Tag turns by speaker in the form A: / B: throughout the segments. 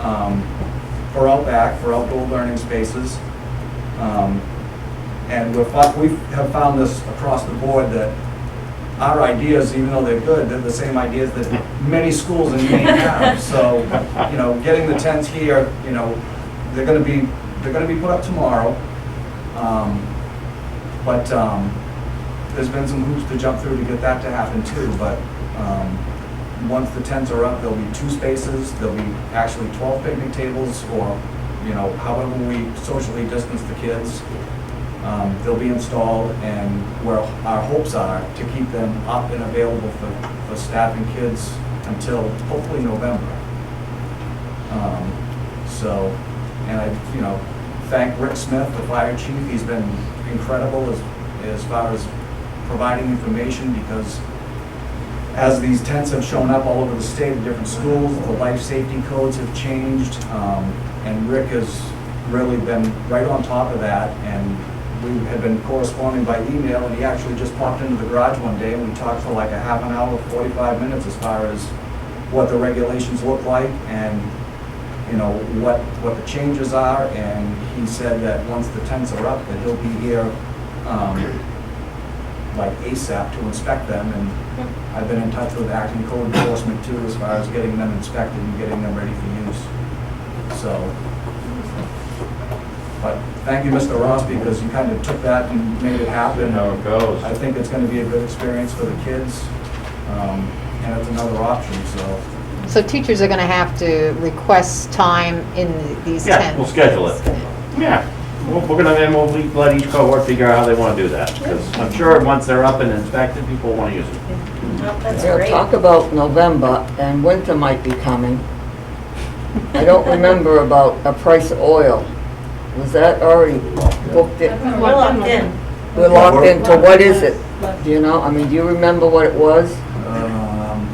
A: um, for Outback, for outdoor learning spaces. Um, And we're, fi- we have found this across the board that our ideas, even though they're good, they're the same ideas that many schools in Maine have. So, you know, getting the tents here, you know, they're gonna be, they're gonna be put up tomorrow. Um, But, um, there's been some hoops to jump through to get that to happen too, but, um, once the tents are up, there'll be two spaces, there'll be actually twelve picnic tables or, you know, however we socially distance the kids. Um, they'll be installed and where our hopes are to keep them up and available for, for staff and kids until hopefully November. Um, so, and I, you know, thank Rick Smith, the fire chief, he's been incredible as, as far as providing information because as these tents have shown up all over the state at different schools, the life safety codes have changed, um, and Rick has really been right on top of that, and we had been corresponding by email, and he actually just popped into the garage one day, and we talked for like a half an hour, forty-five minutes as far as what the regulations look like, and, you know, what, what the changes are, and he said that once the tents are up, that he'll be here, um, like ASAP to inspect them, and I've been in touch with acting code enforcement too, as far as getting them inspected and getting them ready for use, so. But thank you, Mr. Ross, because you kind of took that and made it happen.
B: how it goes.
A: I think it's gonna be a good experience for the kids, um, and it's another option, so.
C: So teachers are going to have to request time in these
B: Yeah, we'll
C: tents?
B: schedule it. Yeah, we're we're gonna, then we'll le- let each cohort figure out how they wanna do that, because I'm sure once they're up and inspected, people wanna use it.
D: That's
E: They'll
D: great.
E: talk about November, and winter might be coming. I don't remember about a price of oil. Was that already booked in?
D: We're locked in.
E: We're locked into, what is it? Do you know, I mean, do you remember what it was?
A: um,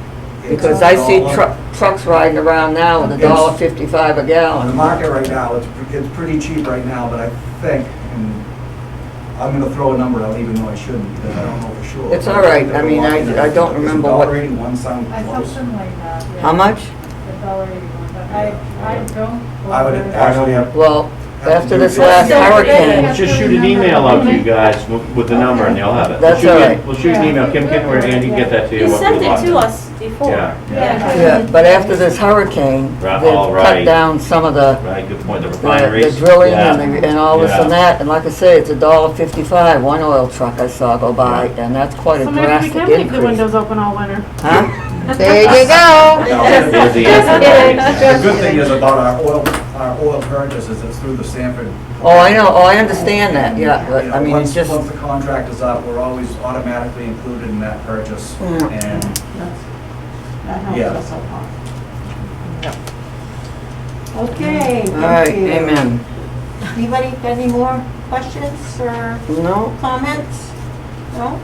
A: it's
E: Because
A: a
E: I see
A: dollar-
E: tru- trucks riding around now with a dollar fifty-five a
A: On the
E: gallon.
A: market right now, it's, pre- it's pretty cheap right now, but I think, and I'm gonna throw a number out even though I shouldn't, because I don't know for sure.
E: It's all right. I mean, I- I don't
A: It's a
E: remember
A: dollar
E: what-
A: eighty-one cent
F: I saw
A: close.
F: something like that. yeah.
E: How much?
F: A dollar eighty-one, but I, I don't.
A: I would actually have,
E: Well, after this last
D: Don't forget
E: hurricane,
B: We'll Just shoot an email out to you guys w- with the number and they'll have it. We'll
E: That's
B: shoot you-
E: all right.
B: We'll shoot an email, Kim, Kim, or Andy, get that to you.
D: You
B: what
D: sent
B: we
D: it to
B: want.
D: us before.
B: Yeah.
F: Yeah.
E: yeah, but after this hurricane, they've
B: Right, all right.
E: cut down some of the,
B: Right, good point, the
E: the
B: refineries.
E: the drilling
B: Yeah.
E: and the- and all this
B: Yeah.
E: and that. And like I say, it's a dollar fifty-five, one oil truck I saw go by, and that's quite a
G: So maybe we
E: drastic
G: can leave the
E: increase.
G: windows open all winter.
E: Huh?
C: There you go.
B: There's the answer.
A: the good thing is about our oil, our oil purchases, it's through the Sanford.
E: Oh, I know, oh, I understand that, yeah, but
A: You know,
E: I mean,
A: once-
E: it's just,
A: Once the contract is up, we're always automatically included in that purchase,
E: Mm.
A: and Yeah.
F: helps us a lot. Okay,
E: all right,
F: thank you.
E: amen.
D: Anybody got any more questions or
E: No,
D: comments? No?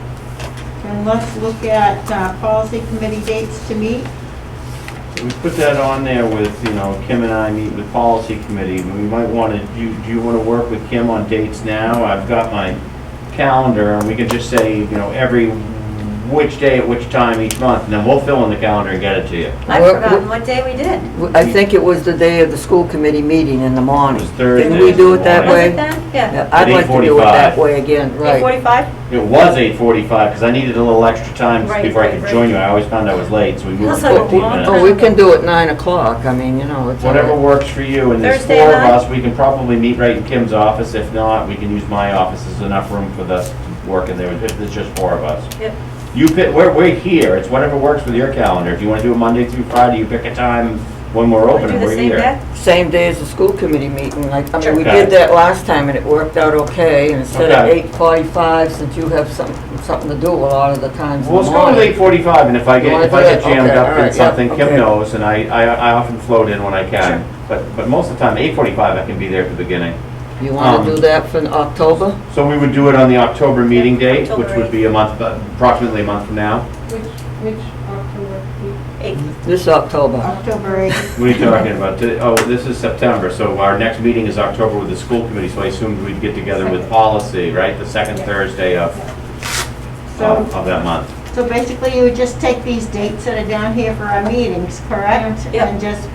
F: And let's look at, uh, policy committee dates to meet.
B: We put that on there with, you know, Kim and I meet with policy committee. We might want to, do, do you want to work with Kim on dates now? I've got my calendar and we can just say, you know, every, which day at which time each month. And then we'll fill in the calendar and get it to you.
D: I've
E: Well,
D: forgotten what day we did.
E: w- I think it was the day of the school committee meeting in the
B: It
E: morning.
B: was Thursday.
E: Can we do it that
D: Was
E: way?
D: it then? Yeah.
E: Yeah, I'd like to do it
B: 8:45.
E: that way again,
D: Eight
E: right.
D: forty-five?
B: It was eight forty-five because I needed a little extra time
D: Right,
B: before I
D: right,
B: could
D: right.
B: join you. I always found I was late, so we moved
D: That's like a
B: fifteen
D: long
B: minutes.
E: Oh, we can do it nine o'clock, I mean, you know, it's. all
B: Whatever
E: right.
B: works for you, and there's
D: Thursday
B: four of
D: night?
B: us, we can probably meet right in Kim's office, if not, we can use my office, there's enough room for us to work in there, if there's just four of us.
D: Yep.
B: You pick, we're, we're here, it's whatever works with your calendar, if you wanna do it Monday through Friday, you pick a time when we're
D: We
B: open
D: do
B: and
D: the
B: we're
D: same
B: here.
D: day?
E: Same day as the school committee meeting, like, I mean, we
B: Sure.
E: did that last time and it worked out okay. And instead of
B: Okay.
E: eight forty-five, since you have some, something to do a lot of the times in
B: Well, let's
E: the
B: go with
E: morning.
B: eight forty-five, and if I
E: You
B: get,
E: wanna
B: if
E: do
B: I get
E: that? Okay,
B: jammed up
E: alright,
B: in
E: yeah,
B: something, Kim
E: okay.
B: knows, and I, I, I often float in when I can. But, but most of the time, eight forty-five, I can be there at the beginning.
E: You wanna
B: um,
E: do that for October?
B: So we would do it on the October meeting date, which
D: October
B: would be a month, approximately a month from now.
F: Which, which October?
D: Eight.
E: This October?
F: October eighth.
B: What are you talking about? Th- Oh, this is September, so our next meeting is October with the school committee, so I assumed we'd get together with policy, right? The second Thursday of,
F: So,
B: of of that month.
F: so basically you would just take these dates that are down here for our meetings, correct?
D: Yeah.
F: And just